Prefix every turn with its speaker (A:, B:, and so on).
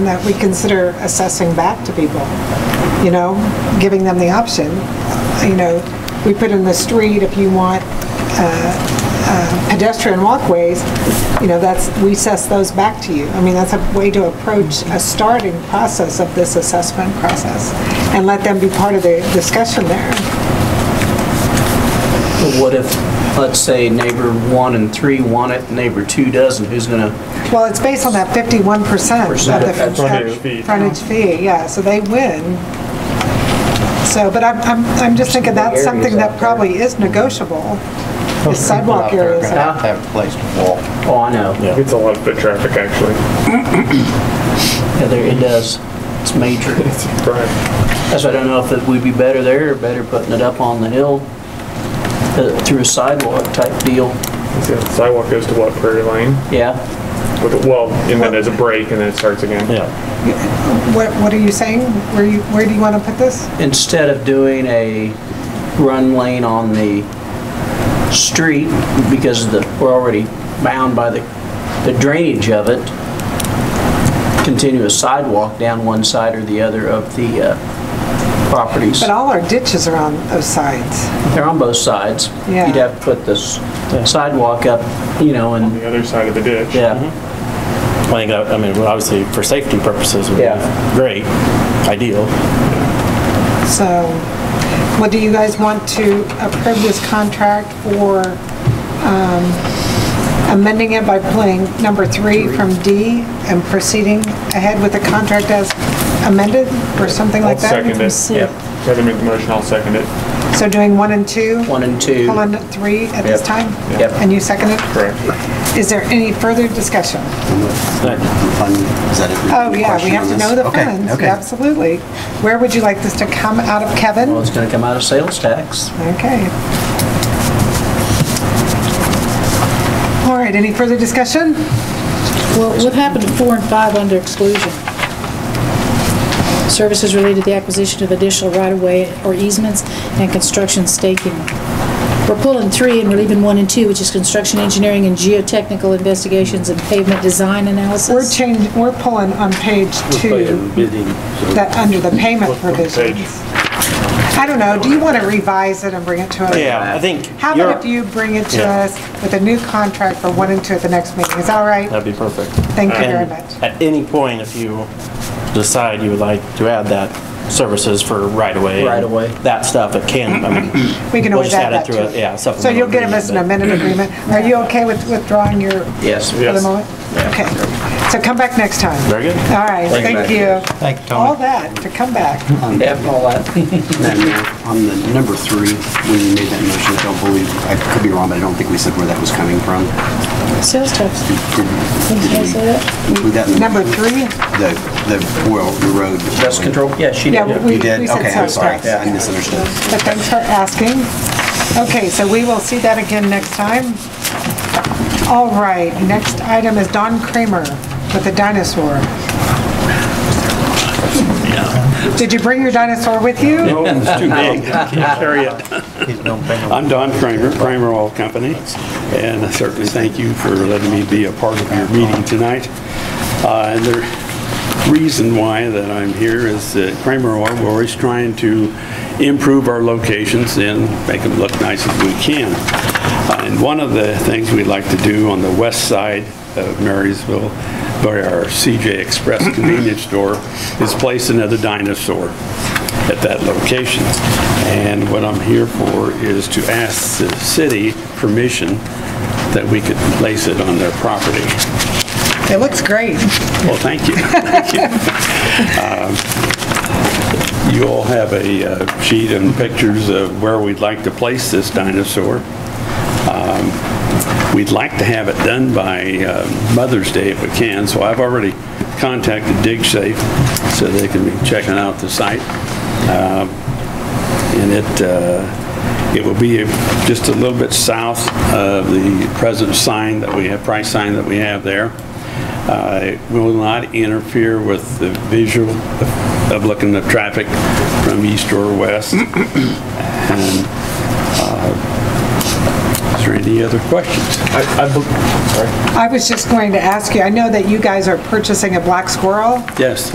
A: that we consider assessing back to people, you know, giving them the option. You know, we put in the street, if you want uh, uh, pedestrian walkways, you know, that's, we assess those back to you. I mean, that's a way to approach a starting process of this assessment process and let them be part of the discussion there.
B: What if, let's say, neighbor one and three want it, neighbor two doesn't, who's gonna,
A: Well, it's based on that 51%
B: Percent
A: of
B: of
A: the.
B: that
C: frontage fee.
A: Frontage fee, yeah, so they win. So, but I'm, I'm, I'm just thinking that's
D: Areas
A: something
D: out
A: that
D: there.
A: probably is negotiable, is sidewalk
D: People out there are
A: areas.
D: gonna
A: are-
D: have to have a place to walk.
B: oh, I know. Yeah,
C: It's a lot of foot traffic, actually.
B: there, it does. It's major.
C: Right.
B: That's why I don't know if it would be better there or better putting it up on the hill uh, through a sidewalk type deal.
C: See, the sidewalk goes to what, Prairie Lane?
B: Yeah,
C: With, a- well, and then there's a break and then it starts again.
E: Yeah,
A: What, what are you saying? Where you, where do you want to put this?
B: instead of doing a run lane on the street because of the, we're already bound by the, the drainage of it, continue a sidewalk down one side or the other of the uh, properties.
A: But all our ditches are on those sides.
B: They're on both sides.
A: Yeah.
B: You'd have to put this sidewalk up, you know, and,
C: The other side of the ditch.
B: yeah,
E: I think, that- I mean, obviously, for safety purposes, would be
B: Yeah.
E: great, ideal.
A: So, what do you guys want to approve this contract for um, amending it by pulling number three from D and proceeding ahead with the contract as amended or something
C: I'll
A: like that?
C: second it. Heather made the motion, I'll second it.
A: So doing one and two,
B: one and two.
A: pulling three at this
B: Yep.
A: time?
B: Yep.
A: And you second it?
C: Correct.
A: Is there any further discussion?
F: fund, is that it?
A: Oh, yeah, we
F: Question
A: have
F: on
A: to
F: this?
A: know the
F: Okay,
A: funds,
F: okay.
A: absolutely. Where would you like this to come out of,
B: Well,
A: Kevin?
B: it's gonna come out of sales tax.
A: Okay. All right, any further discussion?
G: Well, what happened to four and five under exclusion? Services related to the acquisition of additional right-of-way or easements and construction staking. We're pulling three and we're leaving one and two, which is construction engineering and geotechnical investigations and pavement design
A: We're
G: analysis.
A: changing, we're pulling on page two, that, under the payment
C: What page?
A: provisions. I don't know, do you want to revise it and bring it to us?
E: Yeah, I think.
A: How
E: you're-
A: about if you bring it to
E: Yeah.
A: us with a new contract for one and two at the next meeting? Is that all right?
E: That'd be perfect.
A: Thank you very
E: And
A: much.
E: At any point, if you decide you would like to add that, services for right-of-way.
B: Right-of-way.
E: That stuff, it can, I mean,
A: We can
E: we'll
A: always
E: just
A: add
E: add it
A: that
E: through
A: to
E: a- yeah,
A: it. So
E: supplemental
A: you'll give
E: agreement,
A: us an
E: but-
A: amended agreement. Are you okay with withdrawing your,
B: Yes.
A: for the
C: Yes.
A: moment? Okay, so come back next time.
E: Very good.
A: All right, thank you.
E: Thank you, Tony.
A: All that, to come back.
B: Yeah, all that.
F: Then, uh, On the number three, when you made that motion, I don't believe, I could be wrong, but I don't think we said where that was coming from.
G: Sales tax.
F: Did
G: Didn't
F: did
G: you
F: we
G: say that?
F: include that in the-
A: Number three?
F: The, the, well, the road.
B: Dust control, yeah, she
A: Yeah,
B: did.
A: we
F: You did?
A: we said
F: Okay, I'm
A: sales
F: sorry.
A: tax.
F: I misunderstood.
A: But thanks for asking. Okay, so we will see that again next time. All right, next item is Don Kramer with the dinosaur. Did you bring your dinosaur with you?
H: Oh, it's too big. Carry it. I'm Don Kramer, Kramer Oil Company, and I certainly thank you for letting me be a part of your meeting tonight. Uh, And the reason why that I'm here is that Kramer Oil, we're always trying to improve our locations and make them look nice as we can. Uh, And one of the things we'd like to do on the west side of Marysville, by our CJ Express convenience store, is place another dinosaur at that location. And what I'm here for is to ask the city permission that we could place it on their property.
A: It looks great.
H: Well, thank you. Thank you. Um, You all have a uh, sheet and pictures of where we'd like to place this dinosaur. Um, We'd like to have it done by uh, Mother's Day if we can, so I've already contacted DigSafe so they can be checking out the site. Um, And it, uh, it will be just a little bit south of the present sign that we have, price sign that we have there. Uh, It will not interfere with the visual of looking at traffic from east or west. And uh, Is there any other questions?
C: I, I, bel- sorry.
A: I was just going to ask you, I know that you guys are purchasing a black squirrel.
H: Yes.